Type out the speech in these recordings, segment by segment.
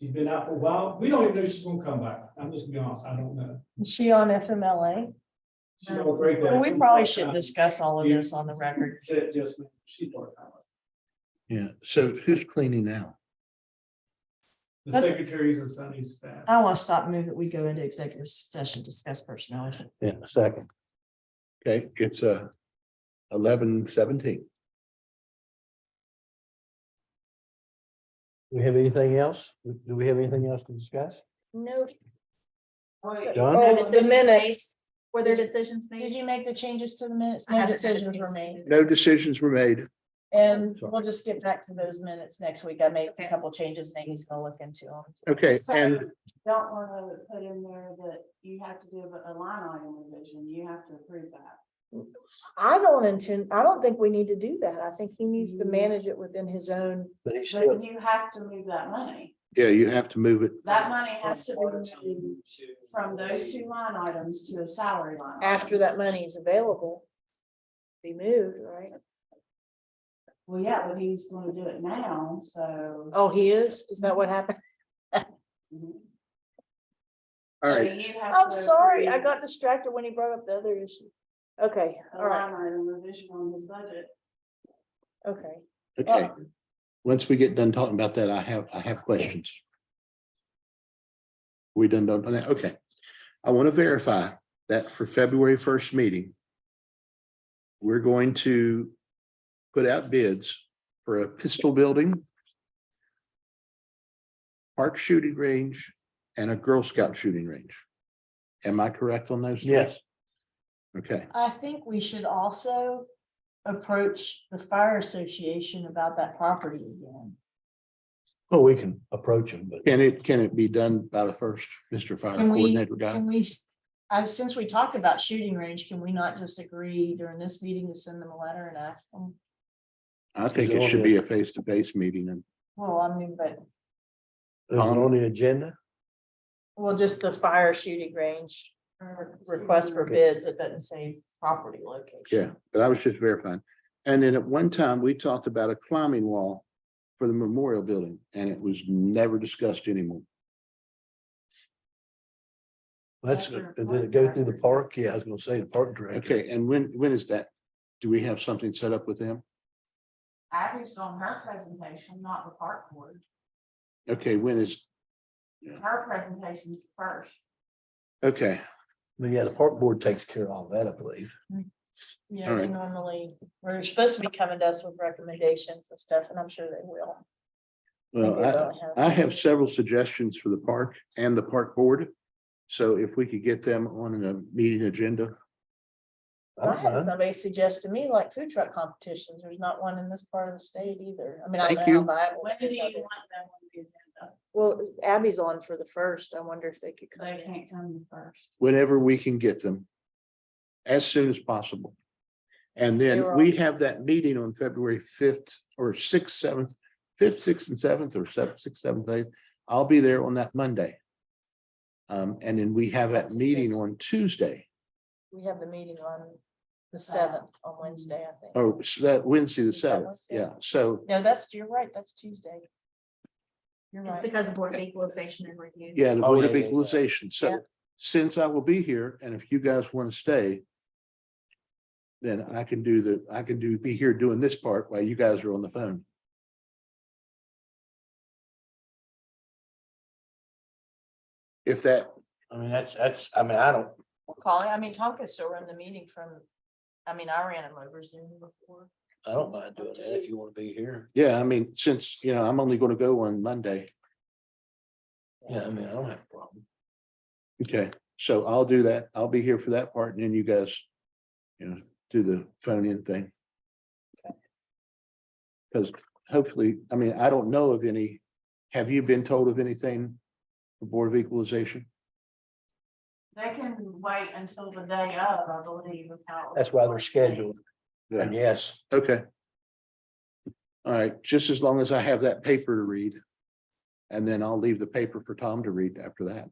She's been out for a while. We don't even know if she's gonna come back. I'm just gonna be honest, I don't know. Is she on FMLA? She's on a break. Well, We probably should discuss all of this on the record. She- Just, she part-time. Yeah, so who's cleaning now? The That's- secretaries and Sunny's staff. I want to stop moving. We go into executive session, discuss personnel. issues. Yeah, second. Okay, it's uh eleven seventeen. We have anything else? Do we have anything else to discuss? No. Done? No Oh, decisions the minutes. made. Were there decisions Did made? you make the changes to the minutes? I No haven't had a decisions were chance to. made. No decisions were made. And Sorry. we'll just get back to those minutes next week. I made a Okay. couple changes. Nate's gonna look into them. Okay, So- and don't want to put in there that you have to do a a line item revision, you have to approve that. I don't intend, I don't think we need to do that. I think he needs to Mm. manage it within his own. but he still, But you have to move that money, yeah, you have to move it. that money has to be moved from those two line items to a salary line. item. After that money is available. Be moved, right? Well, yeah, but he's gonna do it now, so. Oh, he is? Is that what happened? Mhm. All So right, you have Oh. I'm to sorry, I approve got distracted when he brought up the other issue. Okay, A all right, line item revision on his budget. Um, okay. okay. Once we get done talking about that, I have, I have questions. We done done that, okay. I want to verify that for February first meeting, we're going to put out bids for a pistol building, park shooting range, and a Girl Scout shooting range. Am I correct on those? Yes. Okay, I think we should also approach the fire association about that property again. Well, we can approach them, but can it, can it be done by the first, Mr. Fire Can we- Coordinator guy? Can we, s- uh, since we talked about shooting range, can we not just agree during this meeting to send them a letter and ask them? I think it should be a face-to-face meeting and Well, I mean, but, is it Um, on the agenda? well, just the fire shooting range or request for bids. It doesn't say property location. Yeah, but I was just verifying. And then at one time, we talked about a climbing wall for the memorial building and it was never discussed anymore. That's, did it go through the park? Yeah, I was gonna say the park director. Okay, and when, when is that? Do we have something set up with them? Abby's on her presentation, not the park board. Okay, when is, Her presentation's first. okay, But yeah, the park board takes care of all that, I believe. Yeah, All they right. normally, we're supposed to be coming to us with recommendations and stuff, and I'm sure they will. well, I, uh, I have several suggestions for the park and the park board. So if we could get them on a meeting agenda, I I don't had mind. somebody suggest to me like food truck competitions, there's not one in this part of the state either, I mean, I Thank don't know. you. how viable When do food you truck want is. them on the agenda? Well, Abby's on for the first. I wonder if they could come They in. can't come the first. whenever we can get them. As soon as possible. And then You're we have that meeting on February fifth or sixth, seventh, fifth, sixth and seventh or seventh, sixth, seventh, eighth. I'll be there on that Monday. Um, and then we have that That's the meeting sixth. on Tuesday, We have the meeting on Uh, the seventh, on Wednesday, I think. or s- Oh, that Wednesday, the Is that seventh, Wednesday? yeah, so, No, that's, you're right, that's Tuesday. You're It's right, because of Board of Equalization and Review. yeah, the Oh, Board yeah, of yeah, yeah. Equalization, Yeah. so. Since I will be here, and if you guys want to stay. Then I can do the, I can do, be here doing this part while you guys are on the phone. If that, I mean, that's, that's, I mean, I don't, we'll call it, I mean, Tonka still run the meeting from, I mean, I ran him over Zoom before. I don't mind doing that if you wanna be here. yeah, I mean, since, you know, I'm only going to go on Monday, Yeah, I mean, I don't have a problem. okay, so I'll do that. I'll be here for that part and then you guys. You know, do the phone in thing. Because hopefully, I mean, I don't know of any, have you been told of anything? The Board of Equalization? They can wait until the day of, I believe. is how it That's why they're works. scheduled. Yeah. And yes, Okay. All right, just as long as I have that paper to read. And then I'll leave the paper for Tom to read after that.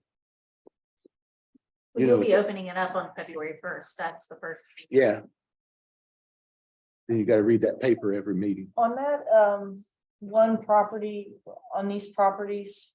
We you will know- be opening it up on February first. That's the first. Yeah. Then you gotta read that paper every meeting. On that, um, one property, on these properties,